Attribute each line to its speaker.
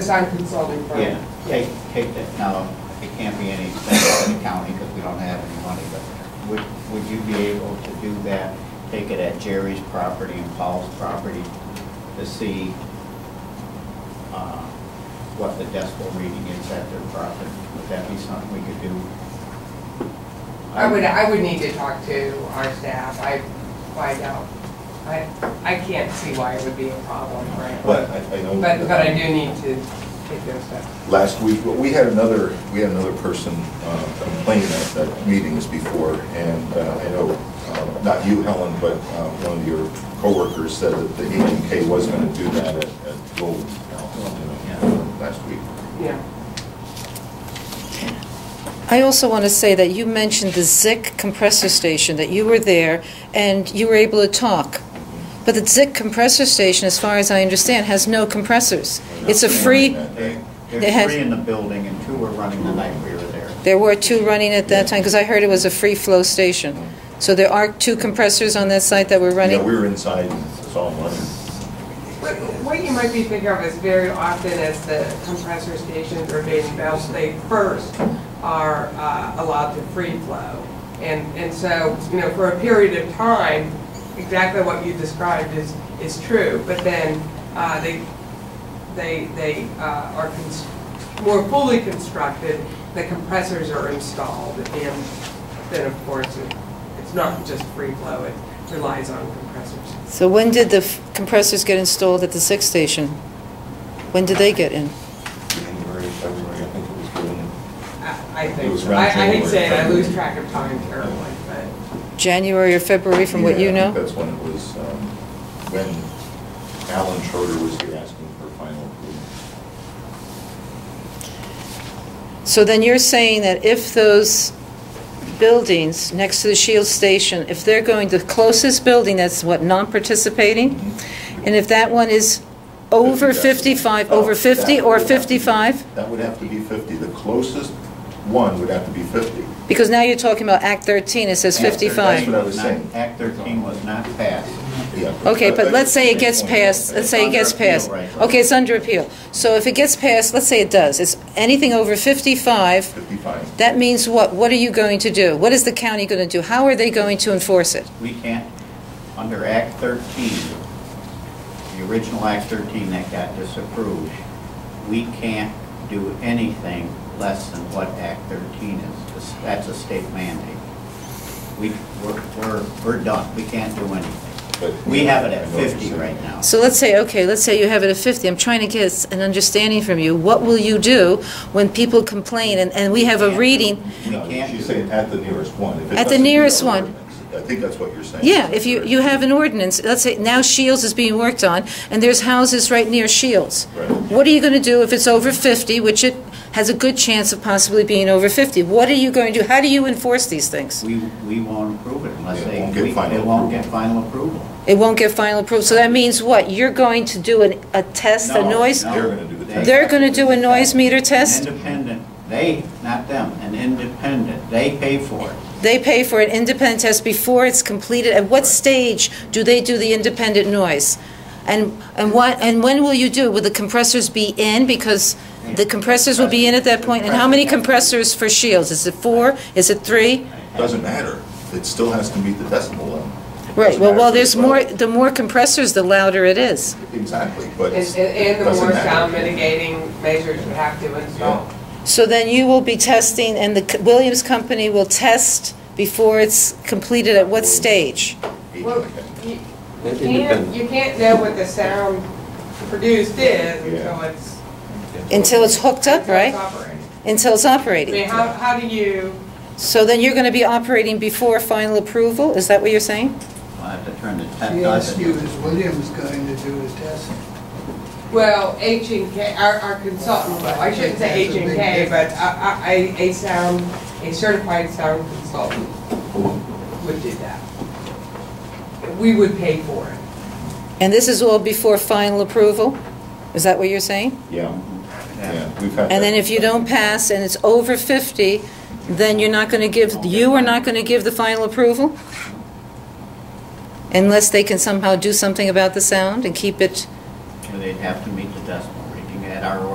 Speaker 1: design consulting firm.
Speaker 2: Yeah, take, take that, now, it can't be any expense to the county because we don't have any money, but would, would you be able to do that? Take it at Jerry's property and Paul's property to see, uh, what the decibel reading is at their property? Would that be something we could do?
Speaker 1: I would, I would need to talk to our staff, I find out, I, I can't see why it would be a problem, right?
Speaker 3: But I, I know.
Speaker 1: But, but I do need to take those steps.
Speaker 3: Last week, but we had another, we had another person uh, complain at, at meetings before, and uh, I know, uh, not you, Helen, but uh, one of your coworkers said that the HMK was gonna do that at, at Golden House, you know, last week.
Speaker 1: Yeah,
Speaker 4: I also want to say that you mentioned the Zick compressor station, that you were there and you were able to talk. But the Zick compressor station, as far as I understand, has no compressors. It's a free,
Speaker 2: They-
Speaker 4: It
Speaker 2: There's
Speaker 4: has-
Speaker 2: three in the building and two were running the night we were there.
Speaker 4: there were two running at that time, because I heard it was a free-flow station. So there are two compressors on that site that were
Speaker 3: Yeah, we
Speaker 4: running?
Speaker 3: were inside and saw them running.
Speaker 1: what, what you might be thinking of is very often as the compressor stations or main valves, they first are uh, allowed to free flow. And, and so, you know, for a period of time, exactly what you described is, is true, but then, uh, they, they, they uh, are cons- more fully constructed, the compressors are installed, and then, of course, it- it's not just free flow, it relies on compressors.
Speaker 4: So when did the f- compressors get installed at the Zick station? When did they get in?
Speaker 3: January, February, I think it was Golden.
Speaker 1: I I
Speaker 3: It
Speaker 1: think,
Speaker 3: was
Speaker 1: so. I I
Speaker 3: around
Speaker 1: hate saying I
Speaker 3: January.
Speaker 1: lose track of time terribly, but
Speaker 4: January or February, from what
Speaker 3: Yeah,
Speaker 4: you
Speaker 3: I
Speaker 4: know?
Speaker 3: think that's when it was, um, when Alan Schroeder was here asking for final approval.
Speaker 4: So then you're saying that if those buildings next to the Shield Station, if they're going, the closest building that's what, non-participating? And if that one is over 55,
Speaker 3: Oh,
Speaker 4: over 50 or 55?
Speaker 3: That would have to be 50. The closest one would have to be 50.
Speaker 4: Because now you're talking about Act 13, it says
Speaker 2: Act 13
Speaker 3: That's what
Speaker 4: 55.
Speaker 3: I was saying.
Speaker 2: Act thirteen was not passed.
Speaker 3: Yeah.
Speaker 4: Okay, but
Speaker 3: That-
Speaker 4: let's say it
Speaker 3: that's
Speaker 4: gets
Speaker 3: the main
Speaker 4: passed,
Speaker 3: point.
Speaker 4: let's say it
Speaker 2: Under
Speaker 4: gets
Speaker 2: appeal,
Speaker 4: passed.
Speaker 2: right.
Speaker 4: Okay, it's under appeal. So if it gets passed, let's say it does, it's anything over 55,
Speaker 3: 55.
Speaker 4: that means what? What are you going to do? What is the county going to do? How are they going to enforce it?
Speaker 2: We can't, under Act 13, the original Act 13 that got disapproved, we can't do anything less than what Act 13 is. That's a state mandate. We, we're- we're, we're done. We can't do anything.
Speaker 3: But-
Speaker 2: We have it at
Speaker 3: I know what you're
Speaker 2: 50
Speaker 3: saying.
Speaker 2: right now.
Speaker 4: So let's say, okay, let's say you have it at 50. I'm trying to get an understanding from you. What will you do when people complain and, and we have a reading?
Speaker 2: We
Speaker 3: No,
Speaker 2: can't
Speaker 3: She's
Speaker 2: do
Speaker 3: saying at the nearest one. If it
Speaker 4: At the
Speaker 3: doesn't meet
Speaker 4: nearest
Speaker 3: our
Speaker 4: one.
Speaker 3: ordinance. I think that's what you're saying.
Speaker 4: Yeah, if you, you have an ordinance, let's say now Shields is being worked on and there's houses right near Shields.
Speaker 3: Right.
Speaker 4: What are you going to do if it's over 50, which it has a good chance of possibly being over 50? What are you going to do? How do you enforce these things?
Speaker 2: We, we won't approve it unless
Speaker 3: It
Speaker 2: they,
Speaker 3: won't get
Speaker 2: we-
Speaker 3: final
Speaker 2: it won't
Speaker 3: approval.
Speaker 2: get final approval.
Speaker 4: It won't get final approval. So that means what? You're going to do an, a test, a
Speaker 2: No,
Speaker 4: noise?
Speaker 2: no,
Speaker 3: They're gonna do the
Speaker 2: they-
Speaker 3: test.
Speaker 4: They're going to do a noise meter test?
Speaker 2: An Independent, they, not them, an independent, they pay for it.
Speaker 4: They pay for an independent test before it's completed. At what stage do they do the independent noise? And, and what, and when will you do? it? Will the compressors be in? Because the compressors will be in at that point. And how many compressors for Shields? Is it four? Is it three?
Speaker 3: Doesn't matter. It still has to meet the decimal level.
Speaker 4: Right,
Speaker 3: Doesn't
Speaker 4: well, well,
Speaker 3: matter
Speaker 4: there's
Speaker 3: if it's
Speaker 4: more,
Speaker 3: low.
Speaker 4: the more compressors, the louder it is.
Speaker 3: Exactly, but.
Speaker 1: and-
Speaker 3: it's-
Speaker 1: and
Speaker 3: it
Speaker 1: the
Speaker 3: doesn't
Speaker 1: more
Speaker 3: matter.
Speaker 1: sound mitigating measures you have to install.
Speaker 4: So then you will be testing, and the C- Williams Company will test before it's completed at what stage?
Speaker 1: Well,
Speaker 3: Okay.
Speaker 1: you you can't,
Speaker 5: Independent.
Speaker 1: you can't know what the sound produced is
Speaker 3: Yeah.
Speaker 1: until it's.
Speaker 4: Until it's hooked up,
Speaker 1: until it's
Speaker 4: right?
Speaker 1: operating.
Speaker 4: Until it's
Speaker 1: I
Speaker 4: operating.
Speaker 1: mean, how, how do you,
Speaker 4: So then you're going to be operating before final approval? Is that what you're saying?
Speaker 2: I'll have to turn the
Speaker 6: She asked you,
Speaker 2: test.
Speaker 6: is Williams going to do a test?
Speaker 1: well, H and K, our, our consultant, well, I shouldn't say H and K, but a, a, a sound, a certified sound consultant would do that. We would pay for it.
Speaker 4: And this is all before final approval? Is that what you're saying?
Speaker 3: Yeah, yeah, we've had.
Speaker 4: And then
Speaker 3: that.
Speaker 4: if you don't pass and it's over 50, then you're not going to give, you are not going to give the final approval? Unless they can somehow do something about the sound and keep it...
Speaker 2: They'd have to meet the decimal reading at our